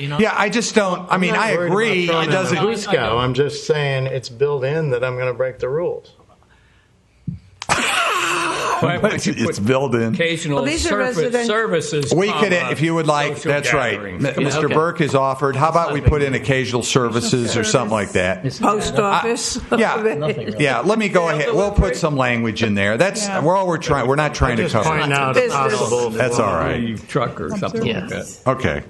You know? Yeah, I just don't. I mean, not I worried agree. about It throwing doesn't. in the Huisko. I'm just saying it's built in that I'm going to break the rules. Why would you put It's built in. occasional Well, these are surface- resident- services. We could, comma, if you would like. social That's right. M- gatherings. Mr. okay. Burke has offered. How about we put in occasional services or something like that? Post office. Yeah, yeah. Let me go ahead. We're all put some language in there. That's Yeah. we're all we're trying. We're not trying to Just cover. point it. out Business. possible. That's all right. truck or something like that. Okay.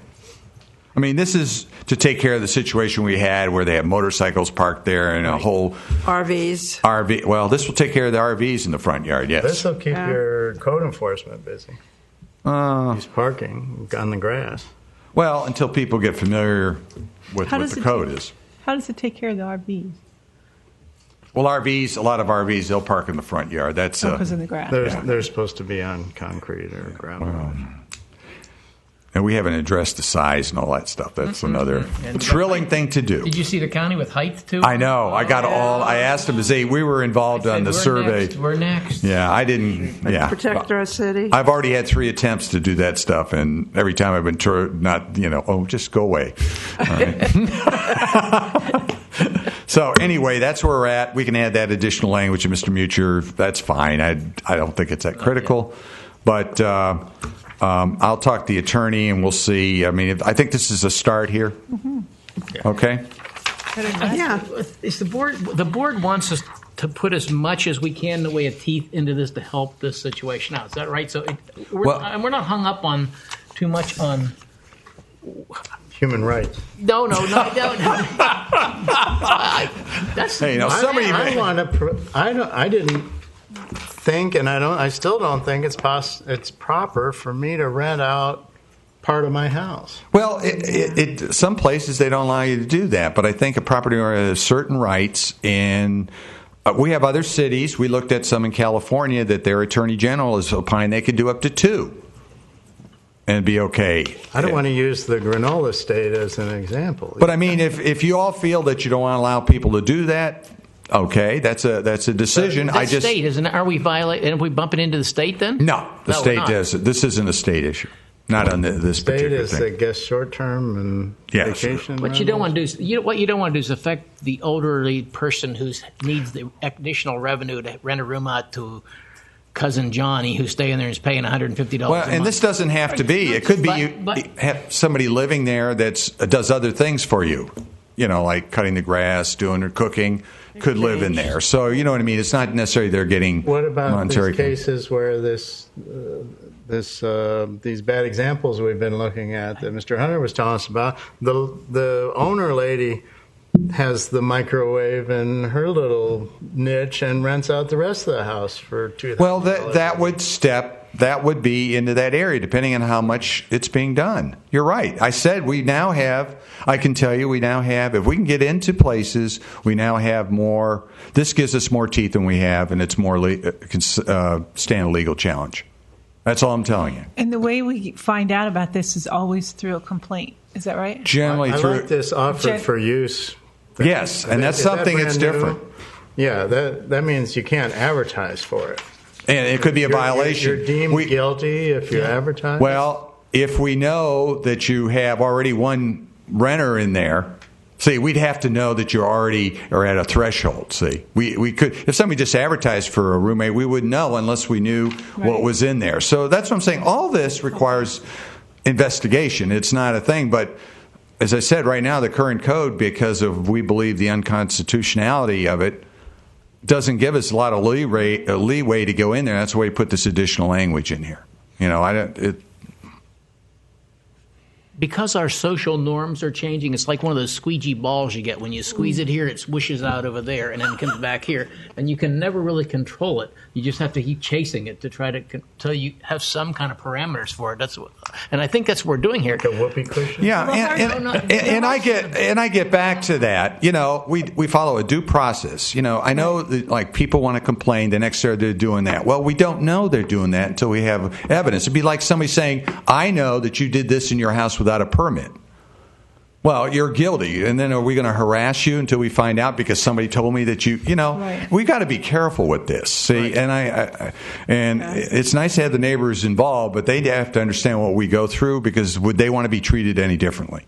I mean, this is to take care of the situation we had where they have motorcycles parked there and a whole RVs. RV. Well, this will take care of the RVs in the front yard. This Yes. will keep Yeah. your code enforcement busy. Uh, He's parking on the grass. well, until people get familiar with How what does the it code take- is. How does it take care of the RVs? Well, RVs. A lot of RVs they'll park in the front yard. That's Oh, uh, Because in the grass. They're, they're supposed to be on concrete or gravel. and we haven't addressed the size and all that stuff. That's another Mm-hmm. And- thrilling thing to do. Did you see the county with height too? I know. I got all. I asked him to see. We were involved Said, on the "We're survey. next, we're next. Yeah, I didn't. Yeah, Protect our city. I've already had three attempts to do that stuff, and every time I've been tur- not, you know, oh, just go away. All right. so anyway, that's where we're at. We can add that additional language to Mr. Mutcher. That's fine. I I don't think it's that critical, but. Uh, um, I'll talk to the attorney and we'll see. I mean, if, I think this is a start here. Okay. Yeah. Is the board, the board wants us to put as much as we can in the way of teeth into this to help this situation out. Is that right? So it, we're, Well- and we're not hung up on too much on. Human rights. No, no, no, I don't. I- that's Hey, now I- somebody I- may- I want to. Pr- I don't. I didn't think, and I don't. I still don't think it's pos- It's proper for me to rent out part of my house. Well, it, it, it, some places they don't allow you to do that, but I think a property owner has certain rights. And uh, we have other cities. We looked at some in California that their attorney general is opined they could do up to two and be okay. I don't want to use the granola state as an example. But I mean, if if you all feel that you don't want to allow people to do that, okay, that's a that's a decision. That's I just state, isn't it? Are we violating? Are we bumping into the state then? no, the we're state not. does. This isn't a state issue. Not on the, this state particular is, thing. I guess, short term and Yeah, sure. vacation. What you don't want to do is you know, what you don't want to do is affect the elderly person who needs the additional revenue to rent a room out to cousin Johnny who's staying there and is paying one hundred and fifty dollars. Well, and this doesn't have to be. It could be you But- but- have somebody living there that's uh, does other things for you. You know, like cutting the grass, doing or cooking, could live in there. So you know what I mean. It's not necessarily they're getting What about monetary these cases where this, uh, this, uh, these bad examples we've been looking at that Mr. Hunter was telling us about? The the owner lady has the microwave in her little niche and rents out the rest of the house for two. Well, that that would step that would be into that area, depending on how much it's being done. You're right. I said we now have. I can tell you, we now have. If we can get into places, we now have more. This gives us more teeth than we have, and it's more le- uh, can s- uh, stand a legal challenge. That's all I'm telling you. And the way we find out about this is always through a complaint. Is that right? Generally I through like this offer Jen- for use. yes, and that's Is that something that's brand new? different, Yeah, that that means you can't advertise for it. and it could be a You're- you're- violation. You're deemed We- guilty if you advertise. Well, if we know that you have already one renter in there, see, we'd have to know that you already are at a threshold. See, we, we could, if somebody just advertised for a roommate, we wouldn't know unless we knew what Right. was in there. So that's what I'm saying. All this requires investigation. It's not a thing, but as I said, right now, the current code, because of we believe the unconstitutionality of it, doesn't give us a lot of leeway, uh, leeway to go in there. That's why we put this additional language in here. You know, I don't. It, because our social norms are changing, it's like one of those squeegee balls you get. When you squeeze it here, it swishes out over there and then comes back here. And you can never really control it. You just have to keep chasing it to try to until you have some kind of parameters for it. That's what, and I think that's what we're doing here. the whoopee cushion. yeah, Well, and, I don't and, know. and, and I get and I get back to that. You know, we we follow a due process. You know, I know that, like people want to complain the next day they're doing that. Well, we don't know they're doing that until we have evidence. It'd be like somebody saying, "I know that you did this in your house without a permit." Well, you're guilty, and then are we going to harass you until we find out because somebody told me that you? You know, Right. we got to be careful with this. See, and I, I I- and it's nice to have the neighbors involved, but they have to understand what we go through because would they want to be treated any differently?